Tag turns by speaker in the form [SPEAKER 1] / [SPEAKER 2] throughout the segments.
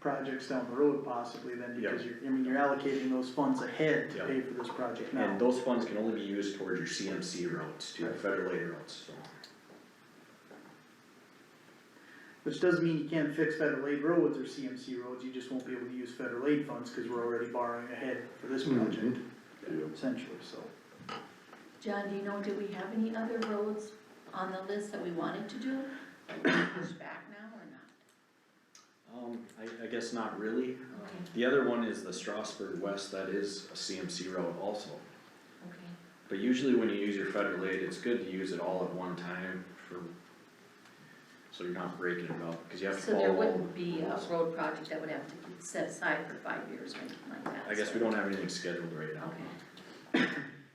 [SPEAKER 1] projects down the road possibly then,
[SPEAKER 2] Yeah.
[SPEAKER 1] because you're, I mean, you're allocating those funds ahead to
[SPEAKER 2] Yeah.
[SPEAKER 1] pay for this project now.
[SPEAKER 2] And those funds can only be used towards your CMC routes, to
[SPEAKER 1] Right.
[SPEAKER 2] federal aid routes, so.
[SPEAKER 1] Which doesn't mean you can't fix federal aid roads or CMC roads, you just won't be able to use federal aid funds, cause we're already borrowing ahead for this project, essentially, so.
[SPEAKER 3] John, do you know, do we have any other roads on the list that we wanted to do? Push back now or not?
[SPEAKER 2] Um, I, I guess not really. Um,
[SPEAKER 3] Okay.
[SPEAKER 2] The other one is the Strasburg West, that is a CMC road also.
[SPEAKER 3] Okay,
[SPEAKER 2] But usually when you use your federal aid, it's good to use it all at one time for, so you're not breaking it up, cause you have to
[SPEAKER 3] so
[SPEAKER 2] follow.
[SPEAKER 3] there
[SPEAKER 2] all
[SPEAKER 3] wouldn't
[SPEAKER 2] the
[SPEAKER 3] be a
[SPEAKER 2] rules.
[SPEAKER 3] road project that would have to be set aside for five years or anything like that?
[SPEAKER 2] I guess
[SPEAKER 3] so-
[SPEAKER 2] we don't have anything scheduled right now.
[SPEAKER 3] Okay.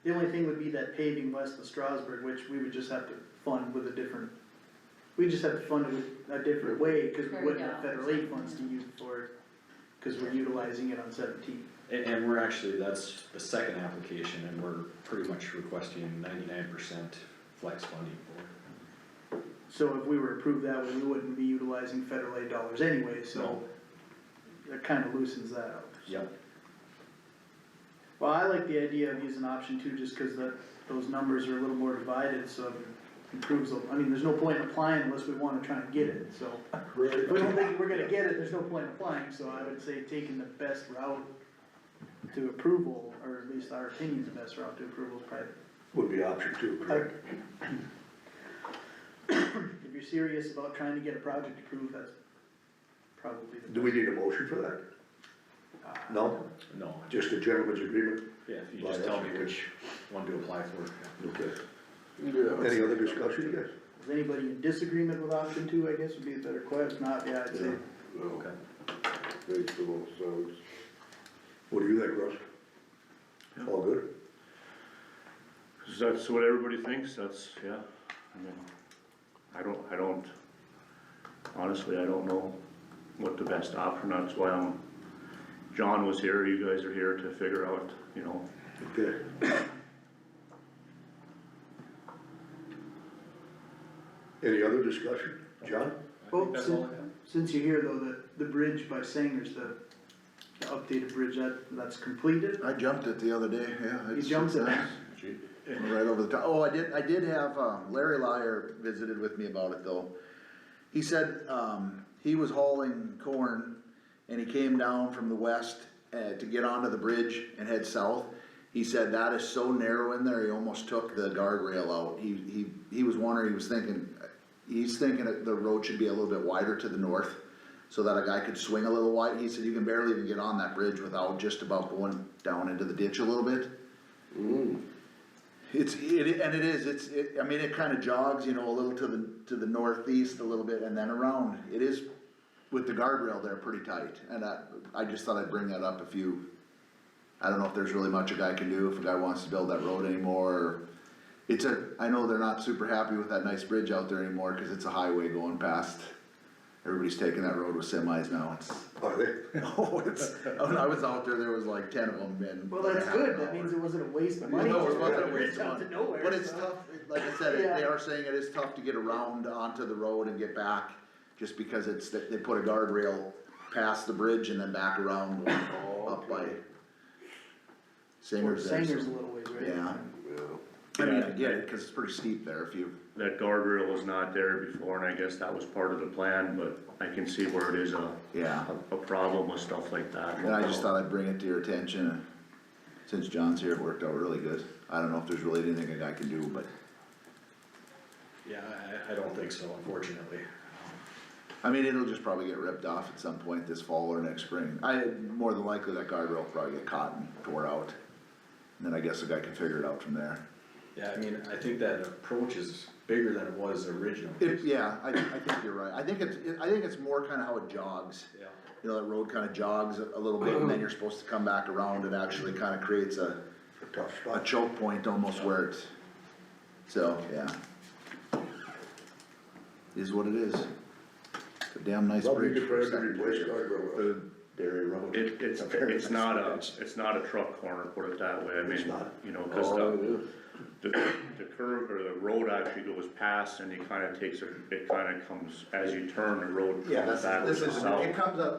[SPEAKER 1] The only thing would be that paving west of Strasburg, which we would just have to fund with a different, we just have to fund it with a different way, cause we
[SPEAKER 3] Fair
[SPEAKER 1] wouldn't have
[SPEAKER 3] enough.
[SPEAKER 1] federal aid funds to use it for it. Cause we're utilizing it on seventeen.
[SPEAKER 2] And, and we're actually, that's the second application and we're pretty much requesting ninety-nine percent flex funding for it.
[SPEAKER 1] So if we were to approve that, we wouldn't be utilizing federal aid dollars anyway, so
[SPEAKER 2] No.
[SPEAKER 1] that kinda loosens that up.
[SPEAKER 2] Yep.
[SPEAKER 1] Well, I like the idea of using option two, just cause the, those numbers are a little more divided, so it improves, the- I mean, there's no point in applying unless we wanna try and get it, so. If we don't think we're gonna get it, there's no point in applying, so I would say taking the best route to approval, or at least our opinion's the best route to approval is probably
[SPEAKER 4] Would be option two, correct?
[SPEAKER 1] If you're serious about trying to get a project approved, that's probably the best.
[SPEAKER 4] Do we need a motion for that? No,
[SPEAKER 2] No,
[SPEAKER 4] just a gentleman's agreement?
[SPEAKER 2] yeah, if you just tell me which one to apply for.
[SPEAKER 4] Okay. Any other discussion, guys?
[SPEAKER 1] Is anybody in disagreement with option two, I guess would be a better question, not, yeah, I'd say,
[SPEAKER 2] Okay.
[SPEAKER 4] What do you think, Russ? All good?
[SPEAKER 5] Cause that's what everybody thinks, that's, yeah, I mean, I don't, I don't, honestly, I don't know what the best option, that's why I'm, John was here, you guys are here to figure out, you know,
[SPEAKER 4] Okay. Any other discussion? John?
[SPEAKER 2] I
[SPEAKER 1] Well,
[SPEAKER 2] think that's
[SPEAKER 1] so-
[SPEAKER 2] all I have.
[SPEAKER 1] since you hear though, that the bridge by Sanger's, the, the updated bridge, that, that's completed?
[SPEAKER 6] I jumped it the other day, yeah.
[SPEAKER 1] You
[SPEAKER 6] it's-
[SPEAKER 1] jumped it?
[SPEAKER 6] it's- Right over the top. Oh, I did, I did have, um, Larry Lyer visited with me about it though. He said, um, he was hauling corn and he came down from the west, uh, to get onto the bridge and head south. He said that is so narrow in there, he almost took the guardrail out. He, he, he was wondering, he was thinking, he's thinking that the road should be a little bit wider to the north so that a guy could swing a little wide. He said you can barely even get on that bridge without just about going down into the ditch a little bit. It's, it, and it is, it's, it, I mean, it kinda jogs, you know, a little to the, to the northeast a little bit and then around. It is with the guardrail there pretty tight, and I, I just thought I'd bring that up if you, I don't know if there's really much a guy can do, if a guy wants to build that road anymore, or. It's a, I know they're not super happy with that nice bridge out there anymore, cause it's a highway going past. Everybody's taking that road with semis now, it's,
[SPEAKER 4] Are they?
[SPEAKER 6] oh, it's, when I was out there, there was like ten of them and.
[SPEAKER 1] Well, that's good, that means it wasn't a waste of money.
[SPEAKER 6] No, it
[SPEAKER 1] just
[SPEAKER 6] wasn't a
[SPEAKER 1] put bridge
[SPEAKER 6] waste of
[SPEAKER 1] out to
[SPEAKER 6] money.
[SPEAKER 1] nowhere,
[SPEAKER 6] But it's
[SPEAKER 1] so.
[SPEAKER 6] tough, it- like I said, it- they
[SPEAKER 1] Yeah.
[SPEAKER 6] are saying it is tough to get around onto the road and get back, just because it's, they they put a guardrail past the bridge and then back around going up by
[SPEAKER 1] Or
[SPEAKER 6] Singer's there,
[SPEAKER 1] Sanger's a
[SPEAKER 6] so.
[SPEAKER 1] little ways, right?
[SPEAKER 6] Yeah. I mean, I get it, cause it's pretty steep there if you,
[SPEAKER 5] that guardrail was not there before, and I guess that was part of the plan, but I can see where it is a,
[SPEAKER 6] yeah,
[SPEAKER 5] a- a problem with stuff like that.
[SPEAKER 6] and I just thought I'd bring it to your attention, and since John's here, it worked out really good. I don't know if there's really anything a guy can do, but,
[SPEAKER 2] Yeah, I, I don't think so, unfortunately.
[SPEAKER 6] I mean, it'll just probably get ripped off at some point this fall or next spring. I, more than likely, that guardrail will probably get caught and tore out. And then I guess the guy can figure it out from there.
[SPEAKER 2] Yeah, I mean, I think that approach is bigger than it was originally.
[SPEAKER 6] It, yeah, I, I think you're right. I think it's, it- I think it's more kinda how it jogs.
[SPEAKER 2] Yeah.
[SPEAKER 6] You know, that road kinda jogs a little bit and then you're supposed to come back around. It actually kinda creates a,
[SPEAKER 4] Tough
[SPEAKER 6] a
[SPEAKER 4] spot.
[SPEAKER 6] choke point almost where it's, so, yeah. Is what it is. A damn nice
[SPEAKER 4] Well, we
[SPEAKER 6] bridge.
[SPEAKER 4] could
[SPEAKER 6] for a
[SPEAKER 4] probably
[SPEAKER 6] secondary-
[SPEAKER 4] replace guardrail.
[SPEAKER 6] third dairy road.
[SPEAKER 5] It, it's,
[SPEAKER 6] A very
[SPEAKER 5] it's
[SPEAKER 6] nice
[SPEAKER 5] not a,
[SPEAKER 6] bridge.
[SPEAKER 5] it's not a truck corner, put it that way, I
[SPEAKER 4] It's
[SPEAKER 5] mean,
[SPEAKER 4] not.
[SPEAKER 5] you know, cause the, the, the curve or the road actually goes past and it kinda takes, a it kinda comes, as you turn, the road
[SPEAKER 6] Yeah,
[SPEAKER 5] comes
[SPEAKER 6] that's,
[SPEAKER 5] backwards
[SPEAKER 6] this
[SPEAKER 5] and
[SPEAKER 6] is,
[SPEAKER 5] south.
[SPEAKER 6] it comes up